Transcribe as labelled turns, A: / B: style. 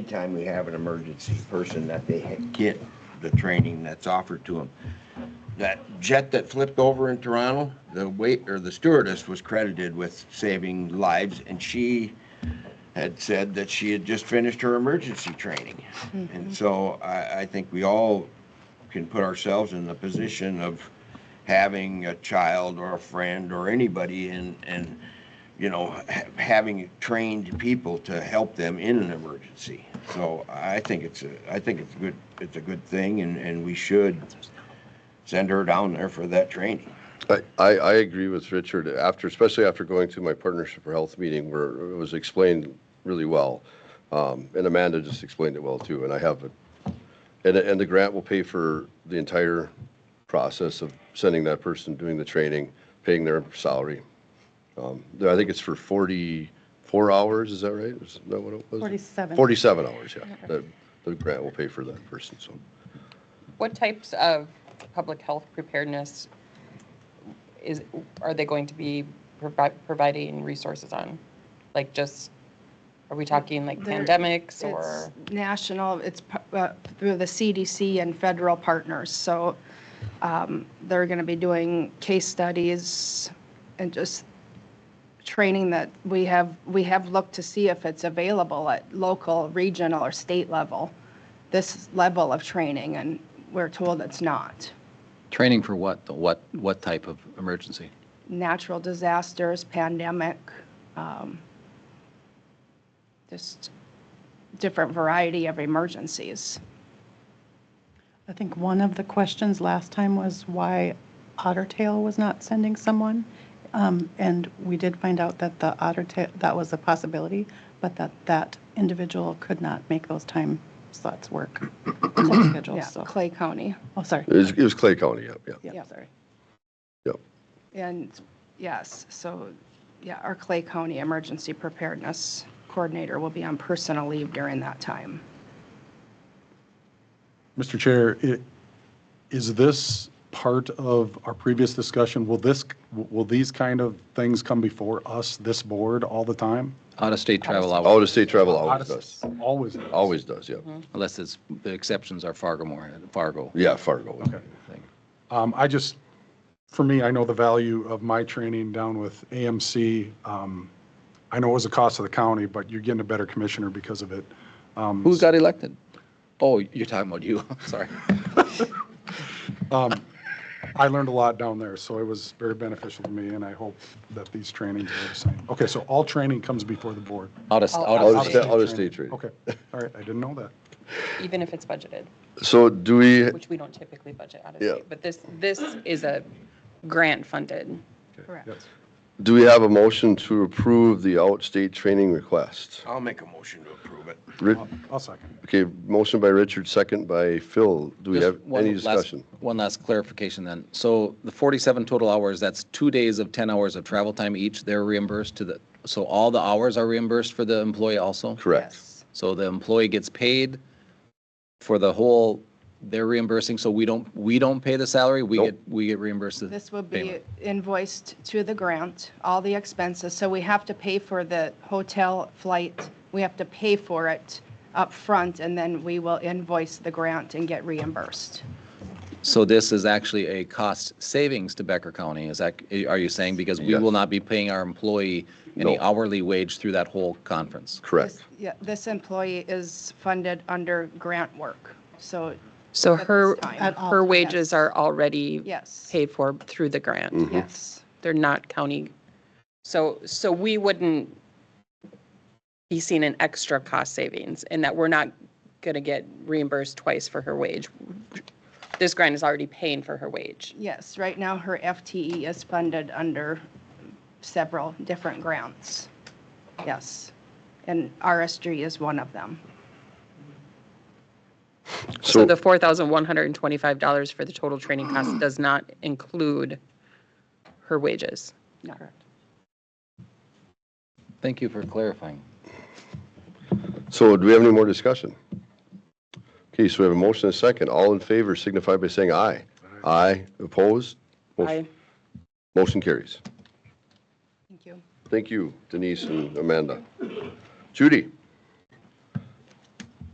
A: Anytime we have an emergency person that they ha- get the training that's offered to them. That jet that flipped over in Toronto, the wait, or the stewardess was credited with saving lives and she had said that she had just finished her emergency training. And so I, I think we all can put ourselves in the position of having a child or a friend or anybody and, and, you know, ha- having trained people to help them in an emergency. So I think it's a, I think it's a good, it's a good thing and, and we should send her down there for that training.
B: I, I I agree with Richard. After, especially after going to my Partnership for Health meeting where it was explained really well. Um, And Amanda just explained it well too, and I have, a- and, and the grant will pay for the entire process of sending that person, doing the training, paying their salary. Um, I think it's for 44 hours, is that right? Is that what it was?
C: 47.
B: 47 hours, yeah. The, the grant will pay for that person, so.
D: What types of public health preparedness is, are they going to be provi- providing resources on? Like just, are we talking like
C: There-
D: pandemics
C: It's
D: or?
C: national, it's pu- uh, through the CDC and federal partners, so um, they're going to be doing case studies and just training that we have, we have looked to see if it's available at local, regional, or state level, this level of training, and we're told it's not.
E: Training for what? though? What, what type of emergency?
C: Natural disasters, pandemic, um, just different variety of emergencies.
F: I think one of the questions last time was why Otter Tail was not sending someone. Um, And we did find out that the Otter Tail, that was a possibility, but that that individual could not make those time slots work. time
C: Yeah,
F: schedules, so-
C: Clay County.
F: Oh, sorry.
B: It was, it was Clay County, yep, yep,
F: Yeah,
C: Yep.
F: sorry.
B: yep.
C: And yes, so, yeah, our Clay County Emergency Preparedness Coordinator will be on personal leave during that time.
G: Mr. Chair, i- is this part of our previous discussion? Will this, will these kind of things come before us, this board, all the time?
E: Out-of-state travel, hours,
B: Out-of-state travel always does,
G: Always.
B: always does, yep.
E: unless it's, the exceptions are Fargo more, Fargo.
B: Yeah, Fargo. was-
E: thing.
G: Um, I just, for me, I know the value of my training down with AMC. Um, I know it was a cost of the county, but you're getting a better commissioner because of it. Um,
E: Who got elected? Oh, you're talking about you, sorry.
G: I learned a lot down there, so it was very beneficial to me, and I hope that these trainings are the same. Okay, so all training comes before the board.
E: Out of,
D: Oh,
E: out of
B: Out-of-state,
E: state.
B: out-of-state training.
G: Okay, all right, I didn't know that.
D: Even if it's budgeted,
B: So do we,
D: which we don't typically budget out of
B: Yeah.
D: state, but this, this is a grant funded.
C: Correct.
G: Yes.
B: do we have a motion to approve the outstate training request?
A: I'll make a motion to approve it.
B: Ri-
G: I'll- I'll second.
B: Okay, motion by Richard, second by Phil. Do we
E: Just
B: have
E: one
B: any
E: last-
B: discussion?
E: One last clarification then. So the 47 total hours, that's two days of 10 hours of travel time each, they're reimbursed to the, so all the hours are reimbursed for the employee also?
B: Correct.
E: So the employee gets paid for the whole, they're reimbursing, so we don't, we don't pay the salary, we
B: Nope.
E: get, we get reimbursed the
C: This will be
E: payment.
C: invoiced to the grant, all the expenses, so we have to pay for the hotel flight, we have to pay for it up front, and then we will invoice the grant and get reimbursed.
E: So this is actually a cost savings to Becker County, is that, are you saying? Because we
B: Yes.
E: will not be paying our employee any
B: No.
E: hourly wage through that whole conference.
B: Correct.
C: This- Yeah, this employee is funded under grant work, so,
H: So
C: at
H: her,
C: this time.
F: At all
H: her
F: times.
H: wages are already
C: yes,
H: paid for through the
C: Mm-hmm.
H: grant.
C: yes.
H: They're not county.
D: So, so we wouldn't be seeing an extra cost savings in that we're not going to get reimbursed twice for her wage. This grant is already paying for her wage.
C: Yes, right now her FTE is funded under several different grants. Yes. And RSG is one of them.
H: So
B: So,
H: the $4,125 for the total training cost does not include her wages.
C: No.
E: Thank you for clarifying.
B: so do we have any more discussion? Okay, so we have a motion and a second. All in favor signify by saying aye. Aye, opposed? Motion-
D: Aye.
B: Motion carries.
C: Thank you.
B: Thank you, Denise and Amanda. Judy?